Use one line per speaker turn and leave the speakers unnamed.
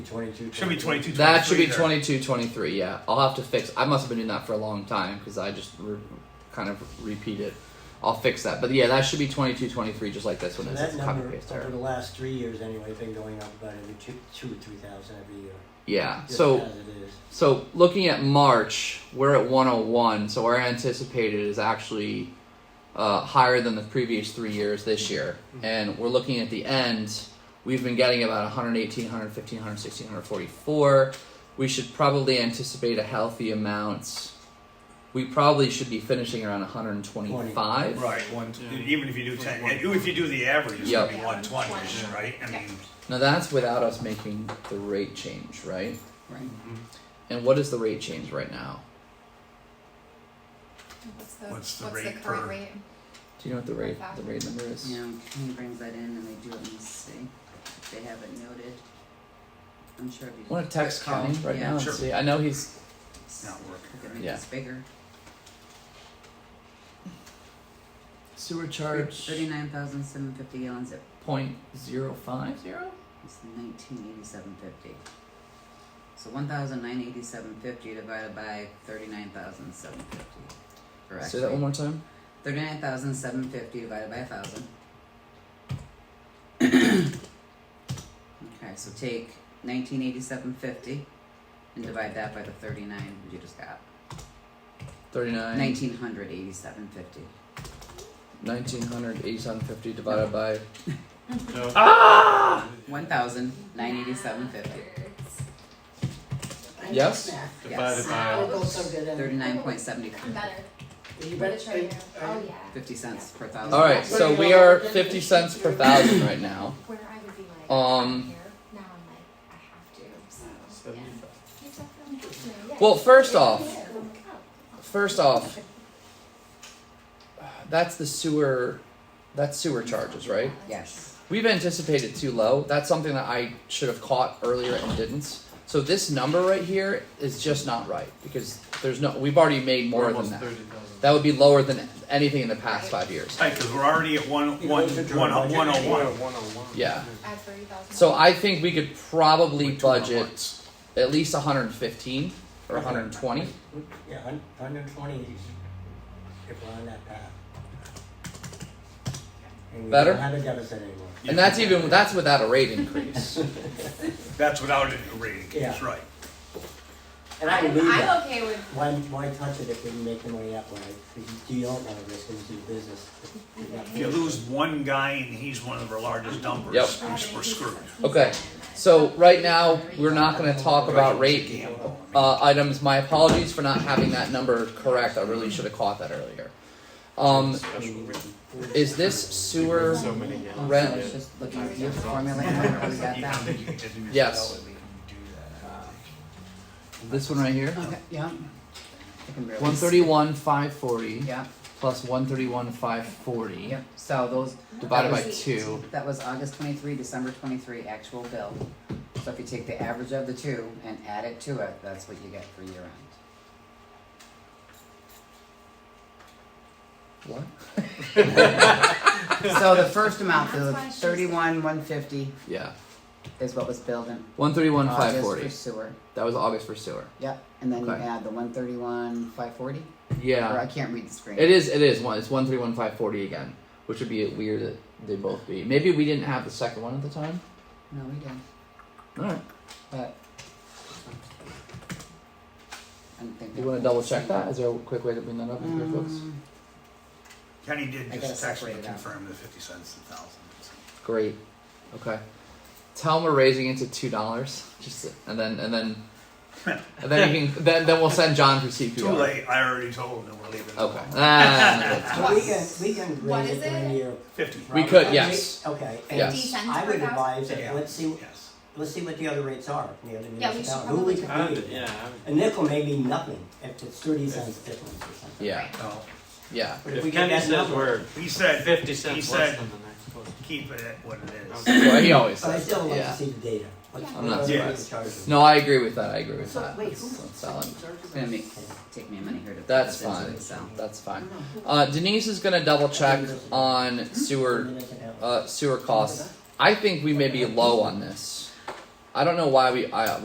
22.
Should be 22.
That should be
23 there.
22 23, yeah. I'll have to fix. I must have been doing that for a long time because I just re- kind of repeat it. I'll fix that. But yeah, that should be 22 23, just like this
So
one is.
that
It's copy
number
paste
over
error.
the last three years anyway, been going up about every two, two or three thousand every year.
Yeah.
just
So.
as it is.
So looking at March, we're at 101. So our anticipated is actually uh, higher than the previous three years this year,
Mm-hmm.
and we're looking at the end. We've been getting about 118, 115, 116, 144. We should probably anticipate a healthy amount. We probably should be finishing around 125.
Right, one,
Yeah.
even if you do ten, even if you do the average, it's gonna
Yep.
be one twenty-ish,
Yeah.
right? I mean,
Now that's without us making the rate change, right?
Right.
And what is the rate change right now?
What's the,
What's the
what's the
rate
current
per-
rate?
Do you know what the rate the rate number is?
Yeah, he brings that in and they do it in the city. They have it noted. I'm sure it'd be.
I want to text
Quick call.
Connie right
Yeah.
now and
Sure.
see. I know he's
it's not
We
working.
could
right?
make
Yeah.
this bigger.
sewer
Thirty-nine thousand seven fifty gallons at,
point zero five zero.
it's nineteen eighty-seven fifty. So one thousand nine eighty-seven fifty divided by thirty-nine thousand seven fifty. Or
Say that one
actually,
more time.
thirty-nine thousand seven fifty divided by a thousand. Okay, so take nineteen eighty-seven fifty and divide that by the thirty-nine you just got.
Thirty nine.
Nineteen hundred eighty-seven fifty.
Nineteen hundred eighty seven fifty divided by.
No.
Ah!
One thousand nine eighty-seven fifty.
Nerds.
Yes?
Divided
Yes.
by.
We're both so good at it.
Thirty-nine point seventy
I'm better.
You
But
better
it's right here. Oh, yeah.
fifty cents per thousand.
All right, so we are fifty cents per thousand right now.
Where I would be like,
Um,
I'm here. Now I'm like, I have to. So, yeah. You definitely have to, yeah.
Well, first off,
Yeah, I'm like, oh.
first off, that's the sewer. That's sewer charges, right?
Yes.
We've anticipated too low. That's something that I should have caught earlier and didn't. So this number right here is just not right because there's no. We've already made more than
Almost
that.
30,000.
That would be lower than anything in the past five years.
Right, because we're already at one,
You
one,
know, it's a
one,
drawing.
one oh one.
Yeah.
I have 30,000.
So I think we could probably
With two hundred
budget
ones.
at least 115 or 120.
Yeah, hun- 120 is if we're on that path. And we
Better?
don't have a deficit anymore.
And that's even that's without a rate increase.
That's without it rating, that's
Yeah.
right.
And I
I'm,
believe that.
I'm okay with.
Why, why touch it if we can make the money that way? If you don't want to risk and do business. if you're not
If you
forced to.
lose one guy and he's one of our largest dumpers,
Yep.
we're we're screwed.
Okay. So right now we're not going to talk about rate
Gamble.
uh, items. My apologies for not having that number correct. I really should have caught that earlier. Um,
Special written.
is this sewer?
So many gallons.
Rent.
Let's just look at your formula and where we got
Yeah, I
that. Uh,
think you can do that.
Yes.
We can do that.
This one right here.
Okay, yeah. I can barely
131 540
see. Yeah,
plus 131 540
yeah. So those,
divided by two.
that was August twenty-three, December twenty-three actual bill. So if you take the average of the two and add it to it, that's what you get for year end.
What?
So the first amount, the
That's why she's-
thirty-one, one fifty
Yeah.
is what was billed in
131
August
540.
for sewer.
That was August for sewer.
Yep, and then you
Okay.
add the one thirty-one, five forty, or I
Yeah.
can't read the screen.
It is. It is one. It's one three one five forty again, which would be weird that they both be. Maybe we didn't have the second one at the time.
No, we don't,
All right.
but. I don't think.
Do you want to double check that? Is there a quick way to bring that up in your books?
Mm.
Um,
Kenny did
I gotta
just text me to
separate it out.
confirm the fifty cents and thousand.
Great. Okay. Tell them we're raising it to two dollars. Just and then and then and then you can then then we'll send John for CPR.
Too late, I already told him that we're leaving.
Okay. Ah,
So we can, we can
What
raise it
is
during the
it?
year.
Fifty.
We
right?
could,
Okay,
yes.
Okay,
Yes.
and
50 cents
I
per
would
thousand?
advise
Yeah.
that, let's see,
Yes.
let's see what the other rates are, in the other
Yeah, we should
municipality, who we
probably-
I
can
would,
beat.
yeah, I
A
would.
nickel may mean nothing if it's thirty cents difference or something.
yeah,
No,
yeah.
But if we
If
get
Kenny
that
says
number,
we're
he said,
fifty
he
cents
said-
less than the next closest.
keep it at what it is.
Okay.
Well, he always
but I
says.
still
that,
like to
yeah.
see the data. What's-
Yeah.
I'm not
what's the
surprised.
charge of it?
No, I agree with that. I agree with
So,
that.
wait, who-
That's- that's solid.
It's gonna make, take me a minute here to. put
That's
this into
fine.
it, so.
That's fine. Uh, Denise is gonna double check on sewer
Minutes and hours.
uh, sewer costs. I think we may be low on this. I don't know why we I